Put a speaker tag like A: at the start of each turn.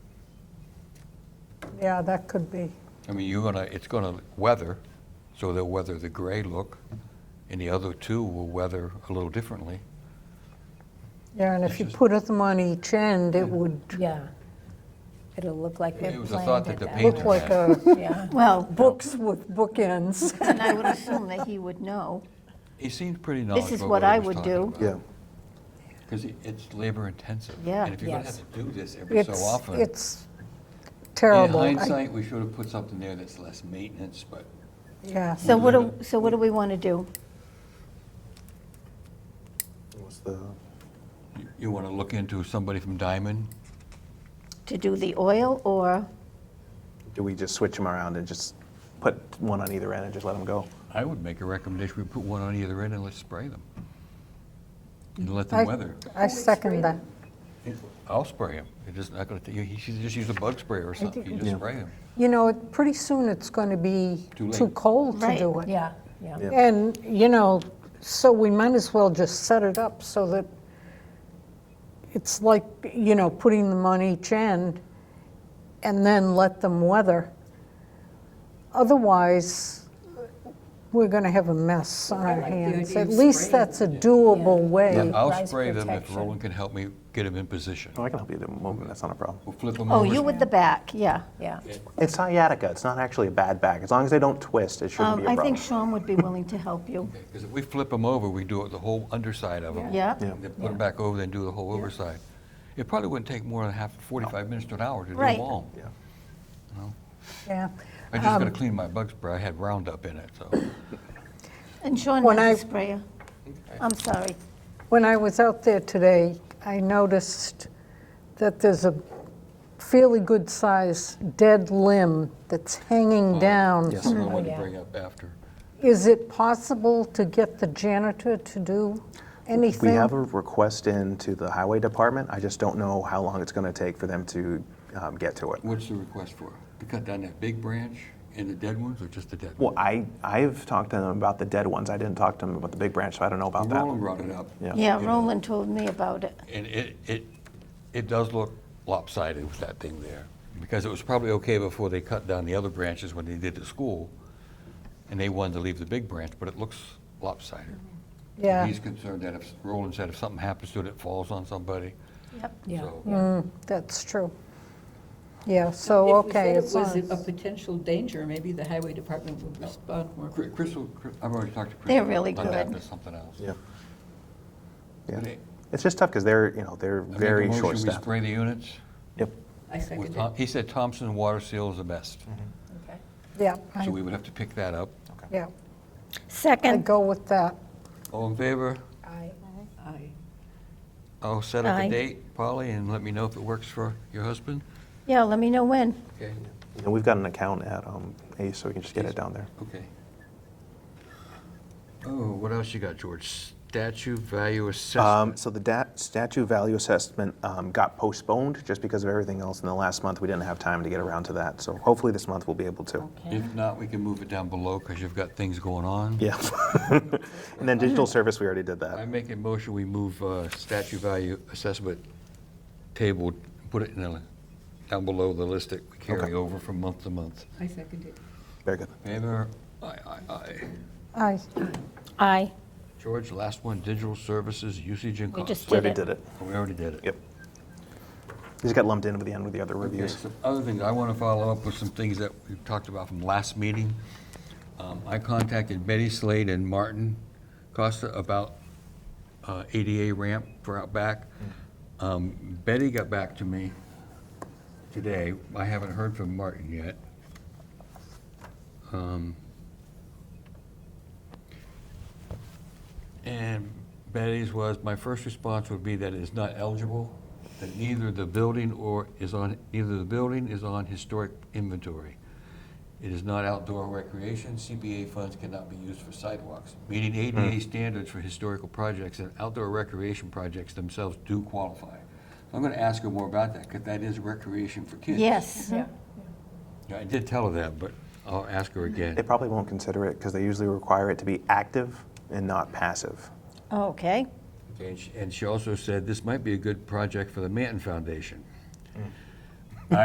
A: Yeah, that could be.
B: I mean, you're gonna, it's gonna weather, so they'll weather the gray look, and the other two will weather a little differently.
A: Yeah, and if you put them on each end, it would
C: Yeah. It'll look like we
B: It
C: planned
B: was a thought that
C: it
B: the
C: that
B: painter
A: look
C: way.
A: like
B: had.
A: a,
C: Yeah,
D: Well,
A: books with bookends.
D: and I would assume that he would know.
B: He seems pretty knowledgeable.
D: This is what I would do.
E: Yeah,
B: Because it's labor intensive.
D: Yeah.
B: And if you're gonna
C: Yes.
B: have to do this every so
A: It's,
B: often.
A: it's
B: In
A: terrible. I-
B: hindsight, we should have put something there that's less maintenance, but
A: Yeah,
D: So what do, so what do we want to do?
E: what's the,
B: you- you wanna look into somebody from Diamond?
D: To do the oil or,
E: do we just switch them around and just put one on either end and just let them go?
B: I would make a recommendation, we put one on either end and let's spray them. And let them
A: I,
B: weather.
A: I second that.
B: I'll spray them. It's just not gonna, ta- you you should just use a bug sprayer or something, you just
E: Yeah.
B: spray them.
A: You know, it- pretty soon it's going to be
B: Too late.
A: too cold to
D: Right.
A: do it.
C: yeah, yeah.
E: Yeah.
A: And, you know, so we might as well just set it up so that it's like, you know, putting them on each end and then let them weather. Otherwise, we're going to have a mess on our hands. At least that's a doable way.
B: I'll
C: Rise
B: spray them if
C: protection.
B: Roland can help me get them in position.
E: Oh, I can help you to move them, that's not a problem.
B: We'll flip them
D: oh,
B: over.
D: you with the back, yeah.
C: Yeah,
E: It's sciatica, it's not actually a bad back, as long as they don't twist, it shouldn't
D: Um,
E: be a
D: I think
E: problem.
D: Sean would be willing to help you.
B: Because if we flip them over, we do it the whole underside of them.
D: Yeah?
E: Yeah.
B: Then put them back over, then do the whole overside. It probably wouldn't take more than half, 45 minutes to an hour to do
D: Right.
B: them all.
E: Yeah.
A: Yeah.
B: I just
D: Um,
B: gotta clean my bug spray, I had Roundup in it, so.
D: And Sean
A: When I-
D: has a sprayer. I'm sorry.
A: When I was out there today, I noticed that there's a fairly good-sized dead limb that's hanging down
B: That's what I wanted to
C: yeah.
B: bring up after.
A: Is it possible to get the janitor to do
E: We
A: anything?
E: have a request in to the highway department, I just don't know how long it's gonna take for them to um, get to it.
B: What's the request for? To cut down that big branch and the dead ones, or just the dead?
E: Well, I, I've talked to them about the dead ones, I didn't talk to them about the big branch, so I don't know about that.
B: Roland brought it up.
E: Yeah.
D: Yeah,
B: You know,
D: Roland told me about it.
B: And it, it, it does look lopsided with that thing there, because it was probably okay before they cut down the other branches when they did the school, and they wanted to leave the big branch, but it looks lopsided.
A: Yeah,
B: He's concerned that if, Roland said if something happens to it, it falls on somebody,
C: yeah.
B: so.
A: that's true. Yeah, so, okay, it's
F: If we said it was a
A: on.
F: potential danger, maybe the highway department would respond more
B: Cri-
F: quickly.
B: Crystal, Cri- I've already talked to Crystal.
D: They're really
B: On that,
D: good.
B: there's something else.
E: Yeah. Yeah.
B: But it-
E: It's just tough, because they're, you know, they're
B: I make a
E: very
B: motion,
E: short
B: We
E: staffed.
B: spray the units.
E: Yep,
F: I
B: with
F: second
B: Thom-
F: it.
B: He said Thompson Water Seal is the best,
D: Mm-hmm.
F: Okay.
A: Yeah, I-
B: so we would have to pick that up.
A: yeah, I
D: Second,
A: go with that.
B: All in favor?
C: I,
F: Aye.
B: I'll set up
D: Aye.
B: a date, Polly, and let me know if it works for your husband.
D: yeah, let me know when.
B: Okay.
E: and we've got an account at um, ACE, so we can just get it down there.
B: Okay. Oh, what else you got, George? Statue value
E: Um,
B: assessment.
E: so the dat- statue value assessment um, got postponed just because of everything else in the last month. We didn't have time to get around to that. So hopefully this month we'll be able to.
B: If not, we can move it down below because you've got things going on.
E: Yeah. and then digital service, we already did
B: I
E: that.
B: make a motion, we move uh, statue value assessment table, put it in the, down below the list that we carry
E: Okay.
B: over from month to month.
F: I second it.
E: Very good.
B: Favor? Aye, aye, aye.
A: I,
D: Aye.
B: George, last one, digital services, usage and
D: We
B: cost.
D: just
E: We
D: did
E: already
D: it.
E: did it.
B: We already did it.
E: Yep. Just got lumped in with the end with the other
B: Okay,
E: reviews.
B: some other things, I want to follow up with some things that we talked about from last meeting. Um, I contacted Betty Slade and Martin Costa about uh, ADA ramp for out back. Um, Betty got back to me today. I haven't heard from Martin yet. Um, And Betty's was, my first response would be that it is not eligible, that neither the building or is on, neither the building is on historic inventory. It is not outdoor recreation, CBA funds cannot be used for sidewalks. Meeting ADA standards for historical projects and outdoor recreation projects themselves do qualify. I'm gonna ask her more about that, because that is recreation for kids.
D: Yes.
C: Yeah.
B: Yeah, I did tell her that, but I'll ask her again.
E: They probably won't consider it because they usually require it to be active and not passive.
D: Okay.
B: Okay, And she, and she also said, this might be a good project for the Manton Foundation.